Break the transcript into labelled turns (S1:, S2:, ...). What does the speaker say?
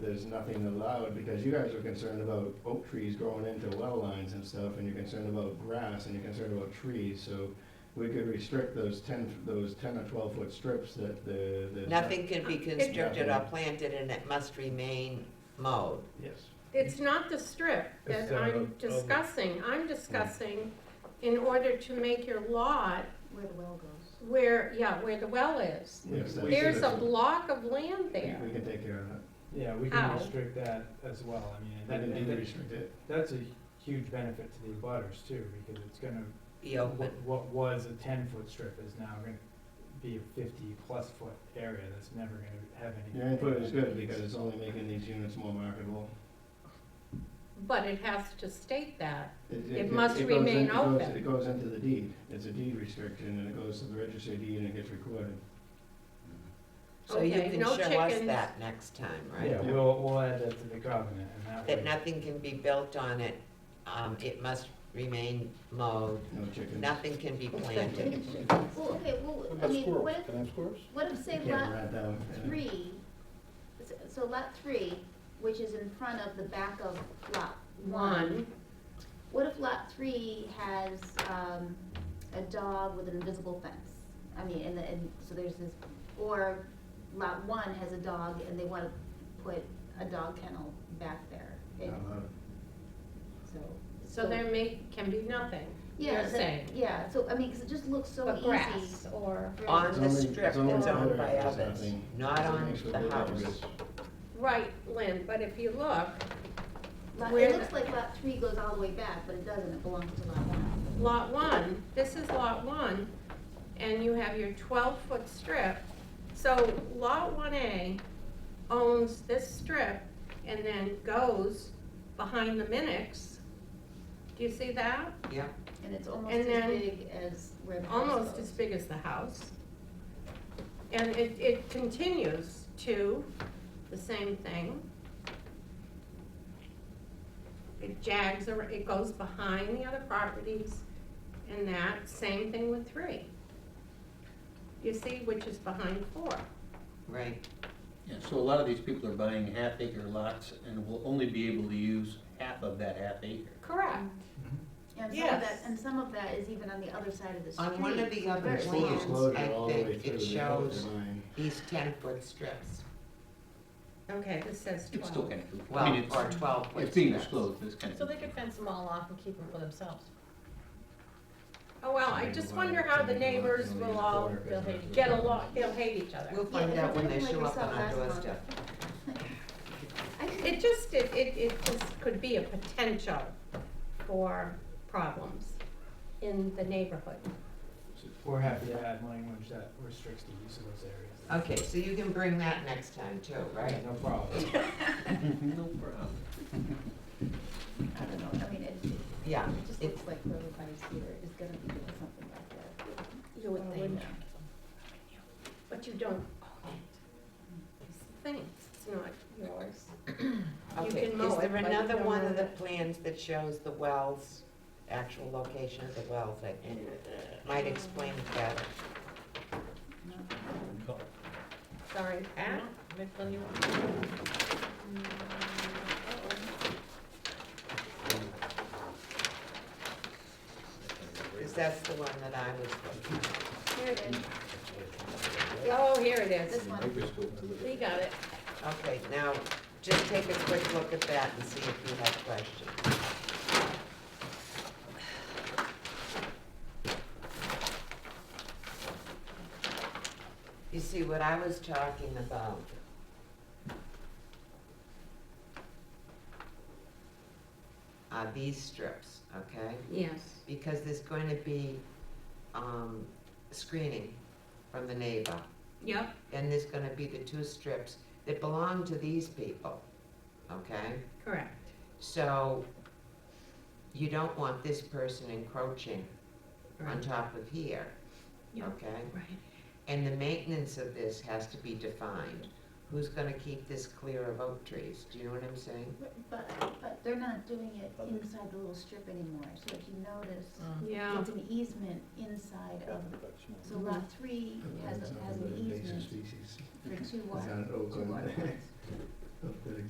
S1: there's nothing allowed, because you guys are concerned about oak trees growing into well lines and stuff, and you're concerned about grass, and you're concerned about trees, so we could restrict those ten, those ten or twelve foot strips that the, the.
S2: Nothing can be constructed or planted and it must remain mowed.
S1: Yes.
S3: It's not the strip that
S4: It's the-
S3: I'm
S4: um,
S3: discussing. I'm discussing in order to make your lot
S5: Where the well goes.
S3: where, yeah, where the well is.
S1: Yes, that's-
S3: There's a block of land there.
S1: We can take care of that,
S4: Yeah, we can
S3: Ow.
S4: restrict that as well, I mean, and that,
S1: we can
S4: and
S1: do
S4: that-
S1: restrict it.
S4: that's a huge benefit to the abutters too, because it's gonna,
S2: Be open.
S4: what- what was a ten-foot strip is now gonna be a fifty-plus foot area that's never gonna have any.
S1: Your input is good, because it's only making these units more marketable.
S3: But it has to state that. It
S1: go-
S3: must
S1: goes in-
S3: remain
S1: it goes-
S3: open.
S1: It goes into the deed, it's a deed restriction, and it goes to the registry of deed and it gets recorded.
S2: So you
S3: Okay,
S2: can
S3: no
S2: show us
S3: chickens.
S2: that next time, right?
S4: Yeah, we'll, we'll add that to the covenant, and that way.
S2: That nothing can be built on it, um, it must remain mowed,
S1: No chickens.
S2: nothing can be planted.
S5: Well, okay, well,
S6: What
S5: I
S6: about
S5: mean,
S6: squirrels?
S5: what,
S6: Can I have squirrels?
S5: what if say
S1: Can't
S5: lot
S1: rat that one.
S5: three, so- so lot three, which is in front of the back of lot one.
S3: One,
S5: What if lot three has, um, a dog with an invisible fence? I mean, and, the- and, so there's this, or lot one has a dog and they wanna put a dog kennel back there.
S1: Not
S6: Uh-huh.
S5: And
S1: allowed.
S5: So.
S3: so there may, can be nothing,
S5: Yeah,
S3: you're
S5: so-
S3: saying.
S5: Yeah, so, I mean, 'cause it just looks so
S3: But
S5: easy.
S3: grass or,
S5: for-
S2: On the
S1: only-
S2: strip
S1: it's only
S2: that's owned
S1: better
S2: by
S1: if there's
S2: others,
S1: nothing.
S2: not
S1: It's
S2: on
S1: next to
S2: the
S1: the
S2: house.
S1: house.
S3: right, Lynn, but if you look,
S5: Lot,
S3: Where
S5: it
S3: the-
S5: looks like lot three goes all the way back, but it doesn't, it belongs to lot one.
S3: lot one, this is lot one, and you have your twelve-foot strip. So lot one A owns this strip and then goes behind the Minix. Do you see that?
S2: Yeah,
S5: And it's almost
S3: And
S5: as
S3: then-
S5: big as where the house
S3: Almost as
S5: goes.
S3: big as the house. And it, it continues to the same thing. It jags, ar- it goes behind the other properties and that, same thing with three. You see, which is behind four.
S2: right.
S6: Yeah, so a lot of these people are buying half acre lots and will only be able to use half of that half acre.
S3: Correct.
S5: And some of that,
S3: Yes.
S5: and some of that is even on the other side of the street.
S2: On one of the other
S1: It's full
S2: plans,
S1: disclosure
S2: I
S1: all the way
S2: think
S1: through.
S2: it
S1: They don't
S2: shows
S1: deny.
S2: these ten-foot strips,
S3: Okay, this says
S6: It's still
S3: twelve.
S6: kind of cool. I
S2: well,
S6: mean, it's,
S2: or twelve-foot strips.
S6: it's being disclosed, it's kind of.
S7: So they could fence them all off and keep them for themselves.
S3: Oh, well, I just wonder how the neighbors will all get along, they'll hate each other.
S2: We'll find
S5: Yeah,
S2: out when they
S5: something
S2: show
S5: like
S2: up on
S5: yourself
S2: our
S5: last month.
S2: doorstep.
S5: I just-
S3: It just, it, it, it just could be a potential for problems in the neighborhood.
S4: We're happy to add language that restricts the use of those areas.
S2: Okay, so you can bring that next time too, right?
S4: No problem.
S6: No problem.
S5: I don't know, I mean, it, it
S2: Yeah,
S5: just
S2: it's,
S5: looks like everybody's here is gonna be doing something like that.
S3: You
S5: Oh,
S3: would think,
S5: Yeah.
S3: but you don't own it. It's the thing, it's not yours. You
S2: okay,
S3: can mow
S2: is
S3: it,
S2: there
S3: but you
S2: another
S3: don't
S2: one
S3: own
S2: of the
S3: it.
S2: plans that shows the wells, actual location of the wells, that might explain it better?
S3: Sorry, Pat.
S7: Which one you want?
S2: Because that's the one that I was looking at.
S5: Here it is,
S3: Oh, here it is.
S5: this one,
S6: Microscope to look
S3: We
S6: at.
S3: got it.
S2: Okay, now, just take a quick look at that and see if you have questions. You see, what I was talking about are these strips, okay?
S3: Yes.
S2: Because there's going to be, um, screening from the neighbor
S3: Yep,
S2: and there's gonna be the two strips that belong to these people, okay?
S3: correct.
S2: So, you don't want this person encroaching on
S3: Right.
S2: top of here,
S3: Yeah.
S2: okay?
S3: Right.
S2: And the maintenance of this has to be defined. Who's gonna keep this clear of oak trees, do you know what I'm saying?
S5: but, but they're not doing it inside the little strip anymore, so if you notice,
S3: Yeah,
S5: it's an easement inside of, so lot three has,
S1: It's
S5: a-
S1: not
S5: has
S1: an
S5: an
S1: invasive
S5: easement
S1: species.
S5: for two
S1: It's
S5: water,
S1: not an oak
S5: two
S1: one.
S5: water points.
S1: That